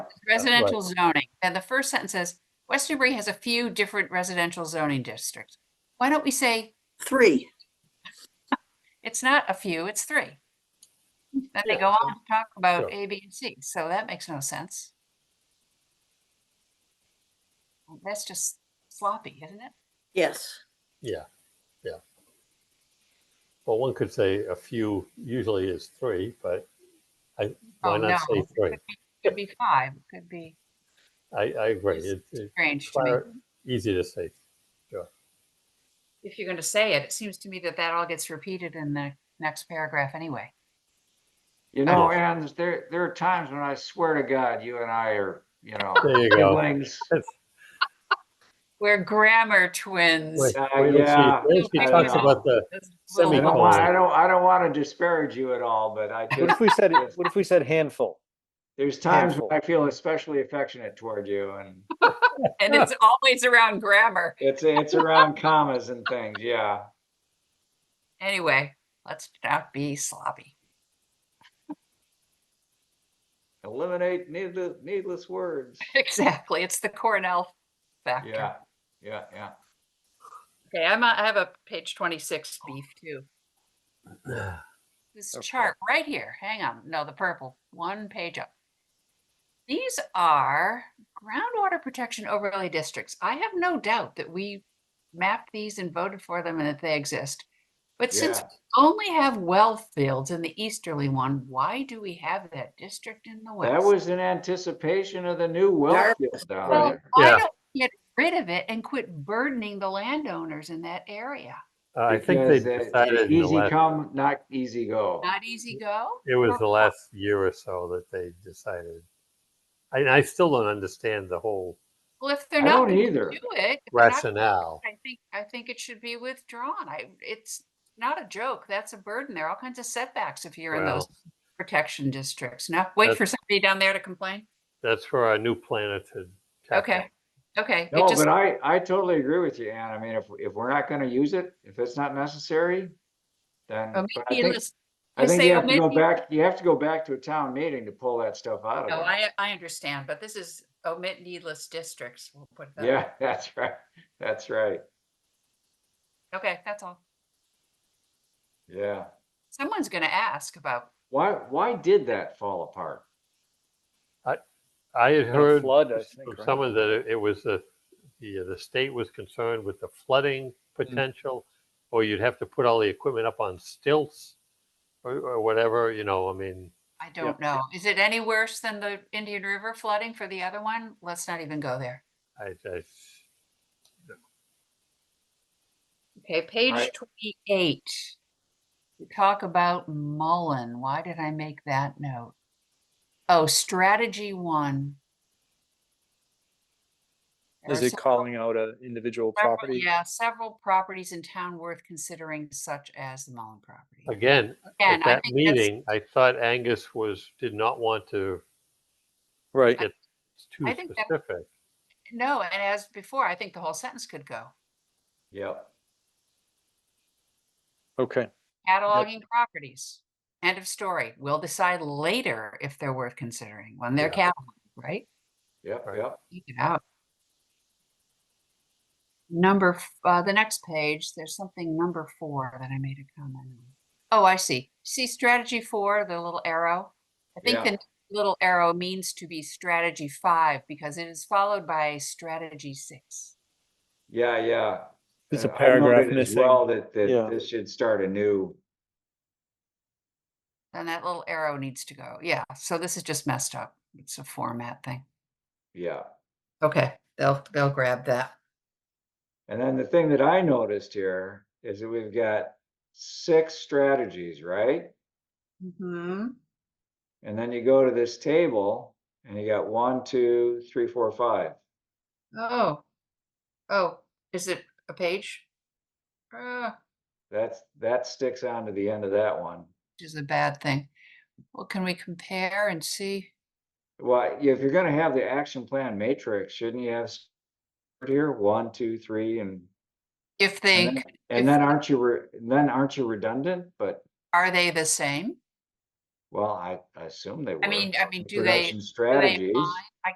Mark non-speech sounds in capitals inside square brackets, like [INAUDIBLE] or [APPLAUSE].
Residential zoning, and the first sentence says, West Newbury has a few different residential zoning districts. Why don't we say, Three. it's not a few, it's three? Then they go on to talk about A, B, and C, so that makes no sense. That's just sloppy, isn't it? Yes. Yeah, yeah. Well, one could say a few usually is three, but I, Oh, why no. not say three? Could be five, it could be I, I agree. It's It- It's strange to me. far easy to say. If you're going to say it, it seems to me that that all gets repeated in the next paragraph anyway. You know, Ann, there, there are times when I swear to God, you and I are, you know, There you go. siblings. We're grammar twins. Wait, Uh, wait till she- yeah. wait till She I talks know. about the, Those I little- don't Semicolon. want, I don't, I don't want to disparage you at all, but I What [LAUGHS] just, if we said, what if we said handful? there's times when I feel especially affectionate toward you and And it's always around grammar. it's, it's around commas and things, yeah. Anyway, let's not be sloppy. [LAUGHS] Eliminate needless, needless words. Exactly. It's the Cornell Yeah, factor. yeah, yeah. Okay, I'm, a- I have a page 26 beef too. This Okay. chart right here, hang on, no, the purple, one page up. These are groundwater protection overlay districts. I have no doubt that we mapped these and voted for them and that they exist. But since Yeah. we only have well fields in the easterly one, why do we have that district in the west? That was in anticipation of the new Dark- wealth field down Well, there. why Yeah. don't we get rid of it and quit burdening the landowners in that area? I think they because, uh, decided in the Easy last, come, not easy go. Not easy go? it was the last year or so that they decided. And I still don't understand the whole Well, if they're I not don't gonna either. do it. if they're not gonna rationale. I think, I think it should be withdrawn. I, it's not a joke. That's a burden. There are all kinds of setbacks if you're in those protection districts. Now, wait That's- for somebody down there to complain. That's for our new planet to. tackle. Okay, okay. It No, just, but I, I totally agree with you, Ann. I mean, if, if we're not gonna use it, if it's not necessary, then, oh, but I maybe think, let's- I think say, you oh, have to go maybe- back, you have to go back to a town meeting to pull that stuff out no, of it. I, I understand, but this is omit needless districts. We'll put that. Yeah, [LAUGHS] that's right. That's right. Okay, that's all. Yeah. Someone's gonna ask about, Why, why did that fall apart? I had And a heard flood, I s- think, from right? someone that it- it was the, the, the state was concerned with the flooding Mm-hmm. potential, or you'd have to put all the equipment up on stilts or, or whatever, you know, I mean, I don't know. Is it any worse than the Indian River flooding for the other one? Let's not even go there. I, I, Okay, page Right. twenty-eight. We Talk about Mullen. Why did I make that note? Oh, strategy one. There Is are it several- calling out a individual several- property? Yeah, several properties in town worth considering such as the Mullen property. again, Again, at I think that that's- meeting, I thought Angus was, did not want to, Right, it's too I think that- specific. No, and as before, I think the whole sentence could go. Yep. okay. Cataloging properties. End of story. We'll decide later if they're worth considering when they're cataloged, right? Yep, Right. yep. Take it out. Number, f- uh, the next page, there's something number four that I made a comment on. Oh, I see. See strategy four, the little arrow? I think Yeah. the little arrow means to be strategy five because it is followed by strategy six. Yeah, yeah. It's a Uh, I paragraph noted as missing. Well, that, Yeah. that this should start a new, Then that little arrow needs to go. Yeah, so this is just messed up. It's a format thing. yeah. Okay, they'll, they'll grab that. And then the thing that I noticed here is that we've got six strategies, right? Mm-hmm. And then you go to this table and you got one, two, three, four, five. Oh. Oh, is it a page? Uh, That's, that sticks on to the end of that one. which is a bad thing. Well, can we compare and see? Well, if you're gonna have the action plan matrix, shouldn't you have s- here, one, two, three, and, If they, then- c- and then aren't you, re- then aren't you redundant? But, are they the same? well, I, I assume they were. I mean, I mean, do they, Production do they strategies. align?